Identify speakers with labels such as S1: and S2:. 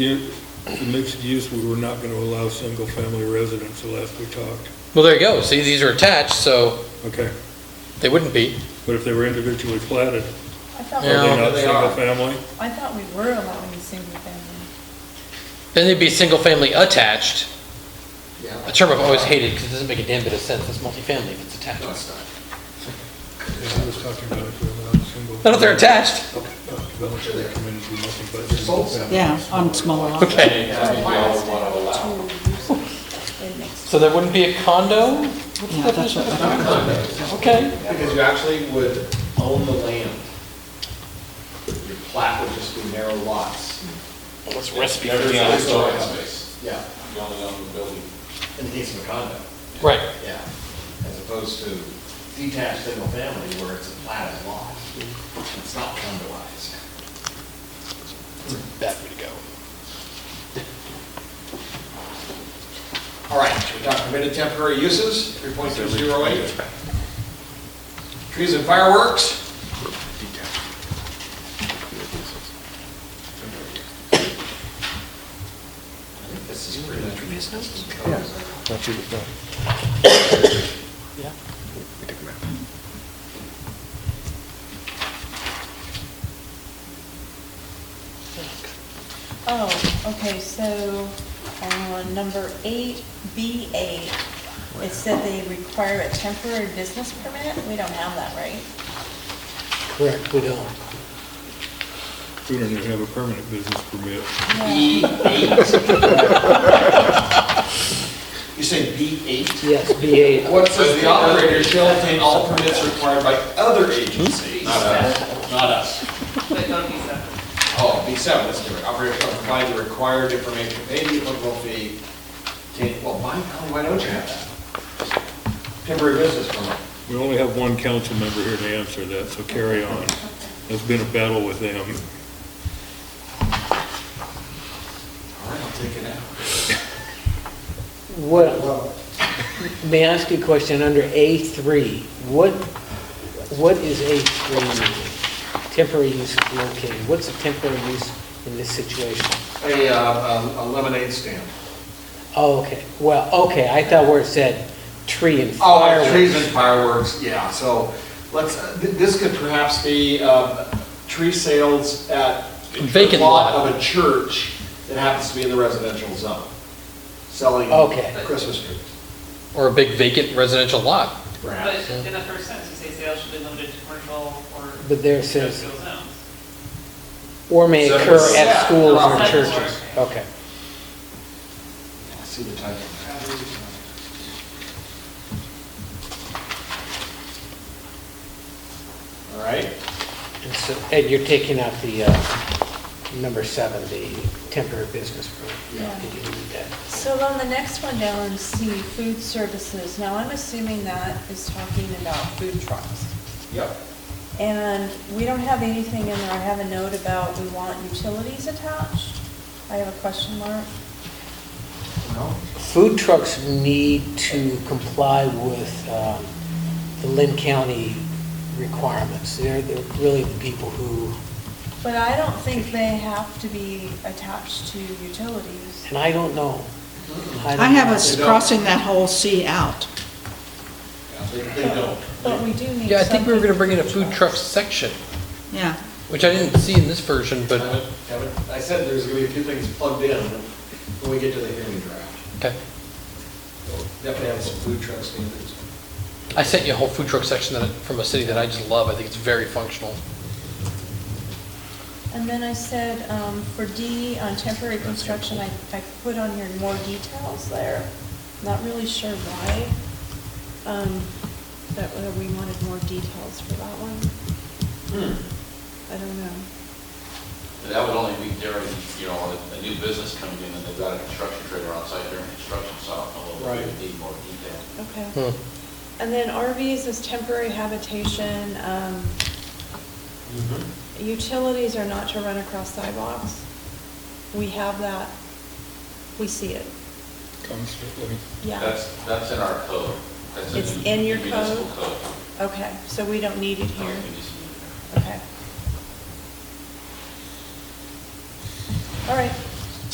S1: You- The mixed use, we were not going to allow single-family residence the last we talked.
S2: Well, there you go. See, these are attached, so
S1: Okay,
S2: they wouldn't be.
S1: but if they were individually platted,
S3: I thought,
S1: are they
S2: Yeah.
S3: we-
S1: not
S4: They are.
S1: single-family?
S3: I thought we were allowing single family.
S2: Then they'd be single-family attached, a
S4: Yeah.
S2: term I've always hated because it doesn't make a damn bit of sense. It's multifamily if it's attached.
S4: No, it's not.
S1: I was talking about uh, if we allowed single.
S2: Not if they're attached.
S1: Developers that come in and do nothing but single-family.
S5: Yeah, on smaller lots.
S2: Okay,
S3: Oh,
S2: so there wouldn't be a condo?
S5: Yeah, that's what I thought.
S2: Okay.
S4: Because you actually would own the land. Your plat would just be narrow lots.
S2: What's recipe
S4: Every
S6: the
S4: other
S6: outdoor
S4: story.
S6: space.
S4: Yeah,
S6: You only own the building.
S4: in the case of a condo,
S2: Right.
S4: yeah. As opposed to detached single family where it's a platted lot. It's not condoized.
S2: That way to go.
S4: All right, we talked permitted temporary uses, 3.208. Trees and fireworks. I think this is pretty much.
S3: Oh, okay, so on number eight, B eight, it said they require a temporary business permit? We don't have that, right?
S2: Correct, we don't.
S1: We don't even have a permanent business permit.
S3: No.
S4: You say B8?
S7: Yes, B8.
S4: What says the operator shall obtain all permits required by other agencies? Not us. Not us.
S8: But don't be separate.
S4: Oh, B7, that's different. Operator shall provide the required information, pay the applicable fee. Can- Well, why, golly, why don't you have that? Temporary business permit.
S1: We only have one council member here to answer that, so carry on. There's been a battle with them.
S4: All right, I'll take it out.
S7: What, may I ask you a question under A3? What, what is A3 meaning? Temporary use is located. What's a temporary use in this situation?
S4: A, uh, a lemonade stand.
S7: Oh, okay. Well, okay, I thought where it said tree and
S4: Oh, and trees
S7: fireworks.
S4: and fireworks, yeah, so let's, uh, th- this could perhaps be, um, tree sales at
S2: Vacant
S4: the
S2: lot.
S4: of a church that happens to be in the residential zone, selling
S7: Okay.
S4: Christmas trees,
S2: Or a big vacant residential lot.
S8: But
S4: perhaps.
S8: in the first sentence, you say sales should be limited to commercial or.
S7: But there it says-
S8: industrial zones.
S7: Or may
S4: So
S7: occur
S4: it's-
S7: at
S4: yeah,
S7: schools or
S4: right.
S7: churches. Okay.
S4: See the title. All right,
S7: And so, and you're taking out the, uh, number seven, the temporary business permit.
S3: Yeah.
S7: Did you read that?
S3: So on the next one down in C, food services, now I'm assuming that is talking about food trucks.
S4: yep.
S3: And we don't have anything in there, I have a note about we want utilities attached. I have a question mark.
S4: Well,
S7: Food trucks need to comply with um, the Lynn County requirements. They're they're really the people who,
S3: But I don't think they have to be attached to utilities.
S7: and I don't know. don't
S5: I have
S7: know.
S5: us
S4: They don't.
S5: crossing that whole C out.
S4: yeah, They they don't.
S3: But we do need something.
S2: Yeah, I think we were gonna bring in a food truck section,
S5: Yeah,
S2: which I didn't see in this version, but,
S4: Haven't- haven't- I said there's gonna be a few things plugged in when we get to the hearing draft.
S2: okay.
S4: Definitely have some food truck standards.
S2: I sent you a whole food truck section that, from a city that I just love. I think it's very functional.
S3: And then I said, um, for D, on temporary construction, I, I put on here more details there. Not really sure why, um, that, uh, we wanted more details for that one.
S4: Hmm.
S3: I don't know.
S6: That would only be during, you know, a- a new business coming in and they've got a construction trailer on site during construction, so I don't know if
S4: Right.
S6: we need more detail.
S3: Okay.
S2: Hmm.
S3: And then RVs is temporary habitation, um, utilities are not to run across sidewalks. We have that, we see it,
S1: Constantly.
S3: yeah.
S6: That's, that's in our code. That's
S3: It's in your
S6: Municipal
S3: code?
S6: code.
S3: Okay, so we don't need it here,
S6: Municipal.
S3: okay. All right,